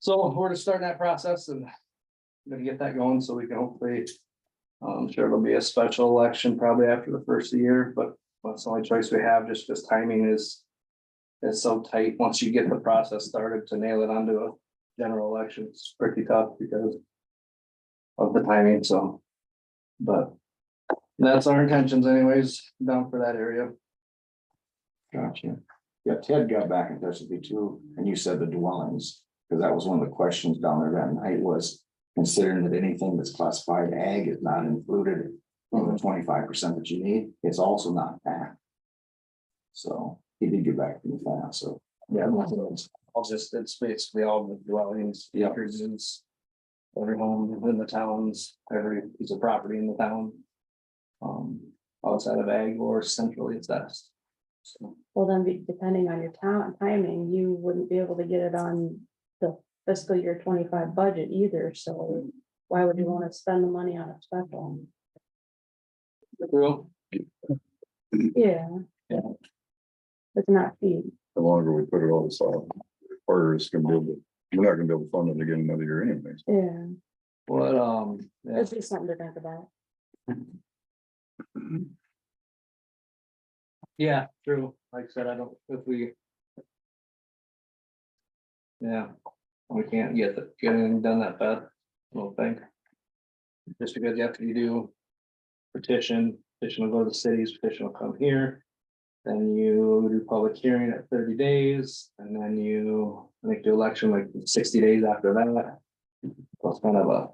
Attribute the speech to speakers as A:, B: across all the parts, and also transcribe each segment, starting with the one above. A: So we're just starting that process and gonna get that going so we can hopefully. um, I'm sure it'll be a special election probably after the first of the year, but that's the only choice we have, just because timing is. Is so tight. Once you get the process started to nail it onto a general election, it's pretty tough because. Of the timing, so. But. That's our intentions anyways, down for that area.
B: Gotcha. Yeah, Ted got back in touch with me too, and you said the dwellings, because that was one of the questions down there that night was considering that anything that's classified ag is not included in the twenty-five percent that you need, it's also not that. So he did get back to me fast, so.
A: Yeah. I'll just, it's basically all the dwellings, the acres. Every home in the towns, every piece of property in the town. Um, outside of ag or centrally assessed. So,
C: Well, then be- depending on your town timing, you wouldn't be able to get it on the fiscal year twenty-five budget either, so. Why would you wanna spend the money on a special?
A: Well,
C: Yeah.
A: Yeah.
C: It's not cheap.
D: the longer we put it all aside, harder it's gonna be able, to- we're not gonna be able to fund it again another year anyways.
C: yeah,
A: but, um, yeah,
C: it's just something to think about.
A: yeah, true. Like I said, I don't, if we. Yeah, we can't get, the- get anything done that bad, I don't think. Just because you have to do. Petition, petition will go to the cities, petition will come here. Then you do public hearing at thirty days, and then you make the election like sixty days after that. So it's kind of a,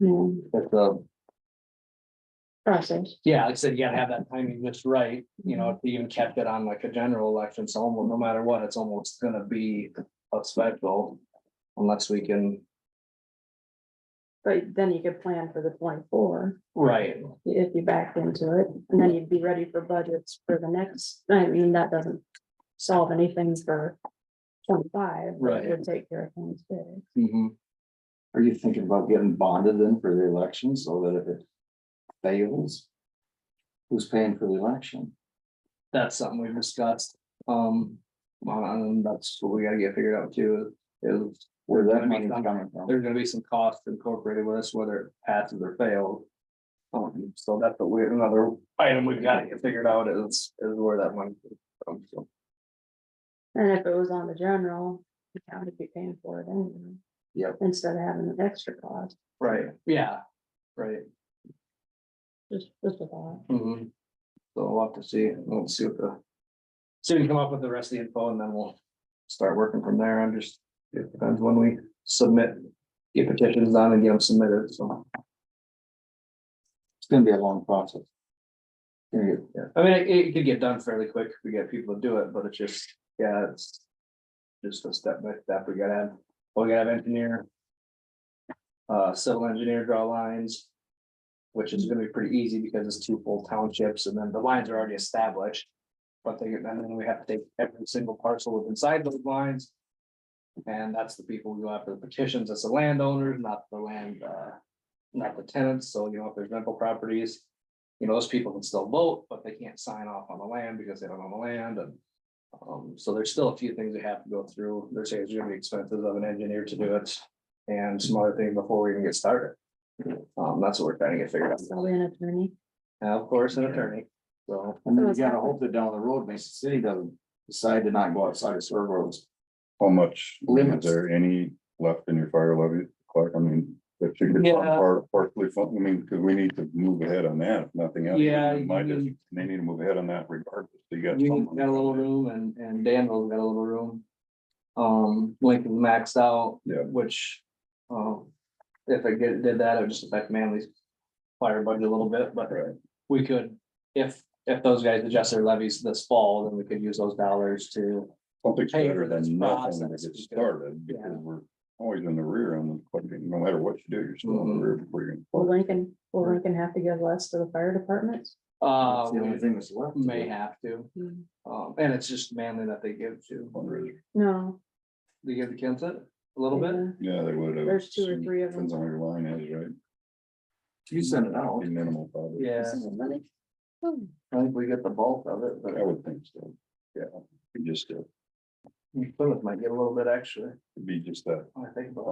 C: Yeah,
A: it's a
C: process.
A: Yeah, like I said, you gotta have that timing just right, you know, if you even kept it on like a general election, so almost, no matter what, it's almost gonna be a special. Unless we can,
C: But then you could plan for the twenty-four,
A: right,
C: if you backed into it, and then you'd be ready for budgets for the next, I mean, that doesn't solve anything for twenty-five. but it Would take care of things big.
A: mhm,
B: Are you thinking about getting bonded then for the election so that if it fails? Who's paying for the election?
A: that's something we've discussed, um. well, And that's what we gotta get figured out too, is
B: Where that money's coming from?
A: there's gonna be some costs incorporated with us, whether it passes or fails. Um, so that's a weird, another item we've gotta get figured out is, is where that money. comes from. so.
C: And if it was on the general, the county would be paying for it anyway.
B: Yep.
C: Instead of having an extra cost,
A: Right, yeah, right.
C: just, just a thought.
A: hmm So we'll have to see, we'll see what the. See if we come up with the rest of the info and then we'll start working from there. I'm just, it depends when we submit. Get petitions on and get them submitted, so,
B: It's gonna be a long process. Gonna get
A: yeah, I mean, it, it could get done fairly quick if we get people to do it, but it's just, yeah, it's. Just a step by step, we gotta have, we gotta have engineer. Uh, civil engineer draw lines. Which is gonna be pretty easy because it's two full townships and then the lines are already established. But they, and then we have to take every single parcel within inside those lines. And that's the people who go after the petitions, that's the landowners, not the land, uh, not the tenants, so you know, if there's rental properties. You know, those people can still vote, but they can't sign off on the land because they don't own the land and. Um, so there's still a few things we have to go through, there's there's gonna be expenses of an engineer to do it. And some other things before we even get started. Um, that's what we're trying to get figured out,
C: Probably an attorney.
A: and of course, an attorney, so.
B: And then you
C: Those
B: gotta
C: happen.
B: hope that down the road, Mason City doesn't decide to not go outside of serve roads.
D: How much, is
B: Limits.
D: there any left in your fire levy, Clark? I mean, that you could
A: Yeah.
D: par- partially fund, I mean, because we need to move ahead on that, if nothing else.
A: Yeah,
D: In My
A: you-
D: district, they need to move ahead on that regardless. So You got.
A: You
D: someone-
A: got a little room and, and Danville's got a little room. Um, Lincoln maxed out.
D: Yeah.
A: Which, um, if I get, did that, it would just affect Manly's fire budget a little bit, but
D: Right.
A: we could, if, if those guys adjust their levies this fall, then we could use those dollars to.
D: Something's
A: pay
D: better
A: for this
D: than nothing to
A: process
D: get
A: because-
D: started
A: Yeah.
D: because we're always in the rear and the question, no matter what you do, you're still
A: Mm-hmm.
D: in the rear. before you can-
C: Will Lincoln, will Lincoln have to give less to the fire departments?
A: Uh,
B: That's the only thing that's left.
A: we may have to, um, and it's just Manly that they give to,
D: fundraiser.
C: No.
A: they give to Kenta a little bit.
C: yeah.
D: Yeah, they would have.
C: There's two or three of them.
D: Depends on where your line is, right?
B: You send it out.
D: Be Minimal, probably.
A: Yeah,
C: This is really- hmm.
A: I think we get the bulk of it, but
D: I would think so. Yeah, it'd be just, a-
A: Plymouth might get a little bit extra,
D: it'd be just that
A: I think, but.